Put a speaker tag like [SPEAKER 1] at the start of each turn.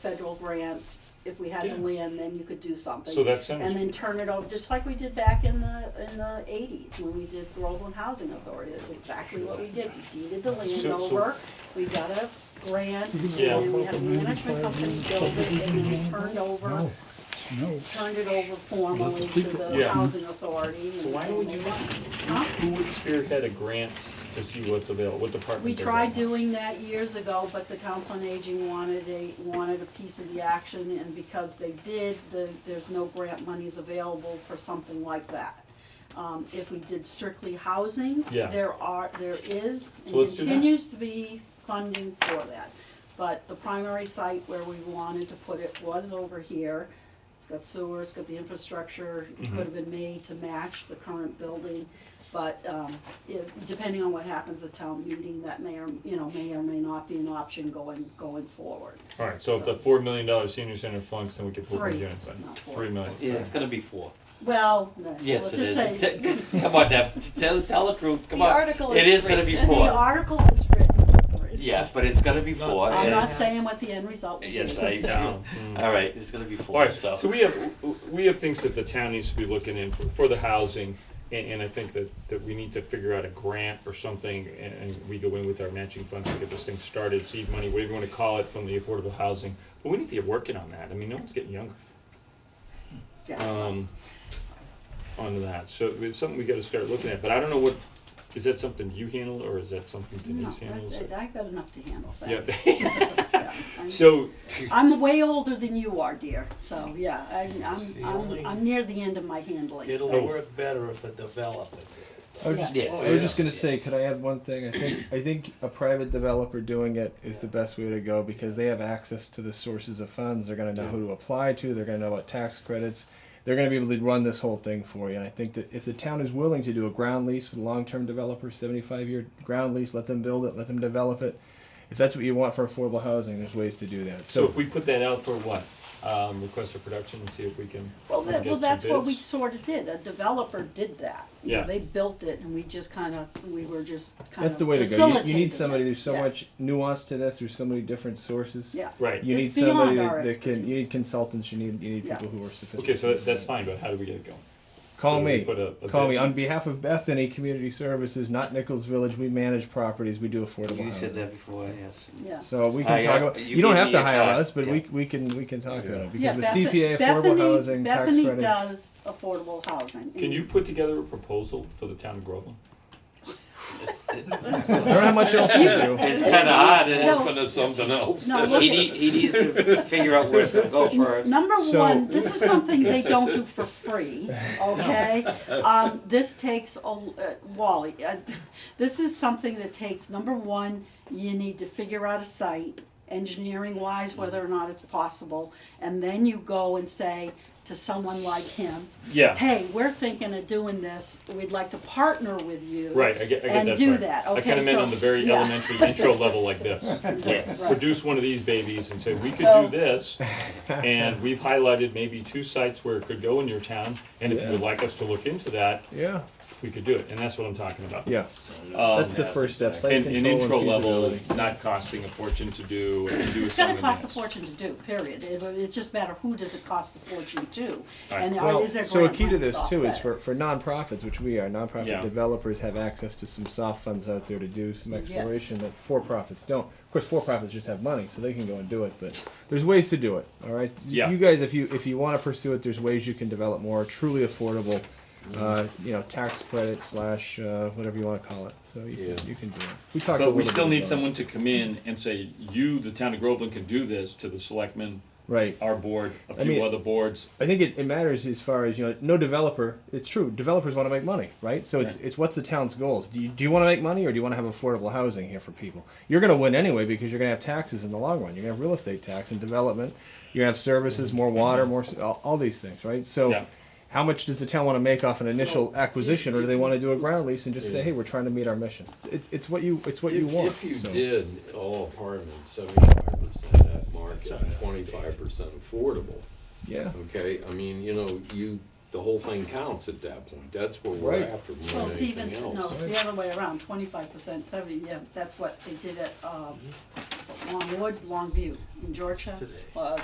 [SPEAKER 1] federal grants, if we had the
[SPEAKER 2] Yeah.
[SPEAKER 1] land, then you could do something.
[SPEAKER 2] So that's Center
[SPEAKER 1] And then
[SPEAKER 2] Street.
[SPEAKER 1] turn it over, just like we did back in the, in the eighties, when we did Groveland Housing Authority, that's exactly what we did. We deeded the land
[SPEAKER 2] So- so-
[SPEAKER 1] over, we got a grant, and
[SPEAKER 2] Yeah.
[SPEAKER 1] then we had a management company build it, and then we turned over,
[SPEAKER 3] No,
[SPEAKER 1] turned it over formally to the
[SPEAKER 2] Yeah.
[SPEAKER 1] housing authority.
[SPEAKER 2] So why would you,
[SPEAKER 1] Huh?
[SPEAKER 2] who would spearhead a grant to see what's available, what department
[SPEAKER 1] We
[SPEAKER 2] does
[SPEAKER 1] tried
[SPEAKER 2] that?
[SPEAKER 1] doing that years ago, but the Council on Aging wanted a, wanted a piece of the action, and because they did, the, there's no grant monies available for something like that. Um, if we did strictly housing,
[SPEAKER 2] Yeah.
[SPEAKER 1] there are, there is, and
[SPEAKER 2] So let's do that.
[SPEAKER 1] continues to be funding for that. But the primary site where we wanted to put it was over here. It's got sewer, it's got the infrastructure, it
[SPEAKER 4] Mm-hmm.
[SPEAKER 1] could have been made to match the current building. But, um, if, depending on what happens at town meeting, that may or, you know, may or may not be an option going, going forward.
[SPEAKER 2] Alright, so if the four million dollar senior center flunks, then we could put more
[SPEAKER 1] Three,
[SPEAKER 2] units in,
[SPEAKER 1] not four.
[SPEAKER 2] three million.
[SPEAKER 4] Yeah, it's
[SPEAKER 2] sorry.
[SPEAKER 4] gonna be four.
[SPEAKER 1] Well, no,
[SPEAKER 4] Yes,
[SPEAKER 1] let's
[SPEAKER 4] it
[SPEAKER 1] just
[SPEAKER 4] is.
[SPEAKER 1] say,
[SPEAKER 4] T- Come on, Deb, tell, tell the truth, come
[SPEAKER 5] The
[SPEAKER 4] on.
[SPEAKER 5] article
[SPEAKER 4] It
[SPEAKER 5] is
[SPEAKER 4] is gonna be
[SPEAKER 1] the
[SPEAKER 4] four.
[SPEAKER 1] article is written.
[SPEAKER 4] Yes, but it's gonna be four.
[SPEAKER 1] I'm
[SPEAKER 4] and-
[SPEAKER 1] not saying what the end result will be.
[SPEAKER 4] Yes, I
[SPEAKER 2] No.
[SPEAKER 4] know. All right, it's gonna be four,
[SPEAKER 2] Alright,
[SPEAKER 4] so.
[SPEAKER 2] so we have, we have things that the town needs to be looking in for, for the housing, and, and I think that, that we need to figure out a grant or something, and, and we go in with our matching funds to get this thing started, seed money, whatever you wanna call it, from the affordable housing, but we need to get working on that, I mean, no one's getting younger.
[SPEAKER 1] Yeah.
[SPEAKER 2] um, onto that. So it's something we gotta start looking at, but I don't know what, is that something you handle or is that something
[SPEAKER 1] No,
[SPEAKER 2] Denise handles?
[SPEAKER 1] that's- I've got enough to handle,
[SPEAKER 2] Yeah.
[SPEAKER 1] thanks. Yeah, I'm-
[SPEAKER 2] So,
[SPEAKER 1] I'm way older than you are, dear, so, yeah, I'm, I'm, I'm, I'm near the end of my handling.
[SPEAKER 6] It'll
[SPEAKER 1] Thanks.
[SPEAKER 6] work better if a developer did it.
[SPEAKER 7] I was just,
[SPEAKER 4] Yes.
[SPEAKER 7] I was just
[SPEAKER 6] Yes.
[SPEAKER 1] Oh,
[SPEAKER 7] gonna say, could I add one thing? I think I think a private developer doing it is the best way to go because they have access to the sources of funds. They're gonna know who to apply to. They're gonna know what tax credits. They're gonna be able to run this whole thing for you. And I think that if the town is willing to do a ground lease with a long-term developer, seventy-five year ground lease, let them build it, let them develop it. If that's what you want for affordable housing, there's ways to do that.
[SPEAKER 2] so
[SPEAKER 7] So,
[SPEAKER 2] if we put that out for what? Um, request for production and see if we can.
[SPEAKER 1] Well,
[SPEAKER 2] we
[SPEAKER 1] that,
[SPEAKER 2] get
[SPEAKER 1] well,
[SPEAKER 2] some
[SPEAKER 1] that's what we
[SPEAKER 2] bids?
[SPEAKER 1] sort of did, a developer did that. You know,
[SPEAKER 2] Yeah.
[SPEAKER 1] They built it and we just kind of, we were just kind of
[SPEAKER 7] that's the way to go. You, you
[SPEAKER 1] facilitating
[SPEAKER 7] need somebody.
[SPEAKER 1] it.
[SPEAKER 7] There's so
[SPEAKER 1] Yes.
[SPEAKER 7] much nuance to this. There's so many different sources.
[SPEAKER 1] Yeah.
[SPEAKER 2] Right,
[SPEAKER 7] You need
[SPEAKER 1] It's
[SPEAKER 7] somebody
[SPEAKER 1] beyond our
[SPEAKER 7] that that can, you
[SPEAKER 1] expertise.
[SPEAKER 7] need consultants, you need, you need
[SPEAKER 1] Yeah.
[SPEAKER 7] people who are sophisticated.
[SPEAKER 2] okay, so that- that's fine, but how do we get it going?
[SPEAKER 7] Call
[SPEAKER 2] So we
[SPEAKER 7] me,
[SPEAKER 2] put a- a
[SPEAKER 7] call
[SPEAKER 2] bid-
[SPEAKER 7] me, on behalf of Bethany Community Services, not Nichols Village, we manage properties, we do affordable
[SPEAKER 4] You said
[SPEAKER 7] housing.
[SPEAKER 4] that before, yes.
[SPEAKER 1] Yeah.
[SPEAKER 7] So we
[SPEAKER 4] I,
[SPEAKER 7] can
[SPEAKER 4] uh,
[SPEAKER 7] talk about,
[SPEAKER 4] you
[SPEAKER 7] you don't
[SPEAKER 4] gave
[SPEAKER 7] have
[SPEAKER 4] me
[SPEAKER 7] to
[SPEAKER 4] a
[SPEAKER 7] hire
[SPEAKER 4] card,
[SPEAKER 7] us, but
[SPEAKER 4] yeah.
[SPEAKER 7] we, we can, we can talk about it,
[SPEAKER 1] Yeah,
[SPEAKER 7] because with
[SPEAKER 1] Beth-
[SPEAKER 7] CPA, affordable
[SPEAKER 1] Bethany-
[SPEAKER 7] housing, tax
[SPEAKER 1] Bethany
[SPEAKER 7] credits.
[SPEAKER 1] does affordable housing.
[SPEAKER 2] Can
[SPEAKER 1] and-
[SPEAKER 2] you put together a proposal for the town of Groveland?
[SPEAKER 4] It's
[SPEAKER 7] I don't have much else to
[SPEAKER 4] it's kinda hard,
[SPEAKER 1] No.
[SPEAKER 4] and
[SPEAKER 1] Open
[SPEAKER 2] to something else.
[SPEAKER 1] No, look
[SPEAKER 4] he
[SPEAKER 1] at-
[SPEAKER 4] need, he needs to figure out where it's gonna go first.
[SPEAKER 1] Number
[SPEAKER 7] So-
[SPEAKER 1] one, this is something they don't do for free, okay? Um, this takes, a l- uh, Wally, uh, this is something that takes, number one, you need to figure out a site, engineering wise, whether or not it's possible. And then you go and say to someone like him,
[SPEAKER 2] Yeah,
[SPEAKER 1] hey, we're thinking of doing this, we'd like to partner with you.
[SPEAKER 2] right, I get, I get
[SPEAKER 1] And
[SPEAKER 2] that
[SPEAKER 1] do
[SPEAKER 2] part.
[SPEAKER 1] that,
[SPEAKER 2] I
[SPEAKER 1] okay,
[SPEAKER 2] kinda meant
[SPEAKER 1] so-
[SPEAKER 2] on the very
[SPEAKER 1] yeah.
[SPEAKER 2] elementary intro level like this.
[SPEAKER 4] Yes.
[SPEAKER 1] Right.
[SPEAKER 2] produce one of these babies and say, we could
[SPEAKER 1] So-
[SPEAKER 2] do this, and we've highlighted maybe two sites where it could go in your town, and if you would like us to look into that,
[SPEAKER 7] Yeah,
[SPEAKER 2] we could do it, and that's what I'm talking about.
[SPEAKER 7] yeah,
[SPEAKER 4] Oh,
[SPEAKER 2] Um,
[SPEAKER 7] that's the first step, site
[SPEAKER 2] And, and intro
[SPEAKER 7] control and
[SPEAKER 2] level,
[SPEAKER 7] feasibility.
[SPEAKER 2] not costing a fortune to do, and do
[SPEAKER 1] It's gonna
[SPEAKER 2] something
[SPEAKER 1] cost a
[SPEAKER 2] else.
[SPEAKER 1] fortune to do, period. It, it's just a matter of who does it cost a fortune to?
[SPEAKER 2] Right.
[SPEAKER 1] And are-
[SPEAKER 7] Well,
[SPEAKER 1] is there
[SPEAKER 7] so a
[SPEAKER 1] grant
[SPEAKER 7] key to
[SPEAKER 1] money
[SPEAKER 7] this too is
[SPEAKER 1] offset it?
[SPEAKER 7] for, for nonprofits, which we are, nonprofit
[SPEAKER 2] Yeah.
[SPEAKER 7] developers have access to some soft funds out there to do some
[SPEAKER 1] Yes.
[SPEAKER 7] exploration that for profits don't. Of course, for profits just have money, so they can go and do it. But there's ways to do it. All right, Y-
[SPEAKER 2] Yeah.
[SPEAKER 7] you guys, if you if you want to pursue it, there's ways you can develop more truly affordable, uh, you know, tax credit slash uh, whatever you want to call it. So you,
[SPEAKER 6] Yeah.
[SPEAKER 7] can, you can do it. We talked. a
[SPEAKER 2] But we
[SPEAKER 7] little
[SPEAKER 2] still
[SPEAKER 7] bit
[SPEAKER 2] need
[SPEAKER 7] about it.
[SPEAKER 2] someone to come in and say, you, the town of Groveland, can do this to the selectmen,
[SPEAKER 7] Right.
[SPEAKER 2] our board, a
[SPEAKER 7] mean-
[SPEAKER 2] few other boards,
[SPEAKER 7] I think it, it matters as far as you know. No developer. It's true. Developers want to make money, right? So it's it's what's the town's goals? Do you do you want to make money or do you want to have affordable housing here for people? You're going to win anyway because you're going to have taxes in the long run. You're going to have real estate tax and development. You're going to have services, more water, more s- all, all these things, right? So.
[SPEAKER 2] Yeah.
[SPEAKER 7] How much does the town want to make off an initial acquisition, or do they want to do a ground lease and just say, "Hey, we're trying to meet our mission"? It's, it's what you it's what you
[SPEAKER 8] If-
[SPEAKER 7] want.
[SPEAKER 8] If you
[SPEAKER 7] so.
[SPEAKER 8] did all apartments, seventy-five percent at market, twenty-five percent affordable,
[SPEAKER 7] yeah,
[SPEAKER 8] okay? I mean, you know, you, the whole thing counts at that point. That's what we're
[SPEAKER 7] Right.
[SPEAKER 8] after more
[SPEAKER 1] Well,
[SPEAKER 8] than
[SPEAKER 1] it's even,
[SPEAKER 8] anything
[SPEAKER 1] no,
[SPEAKER 8] else.
[SPEAKER 1] it's the other way around, twenty-five percent, seventy, yeah, that's what they did at, um, so Longwood, Longview in Georgia.
[SPEAKER 6] Today.
[SPEAKER 1] uh,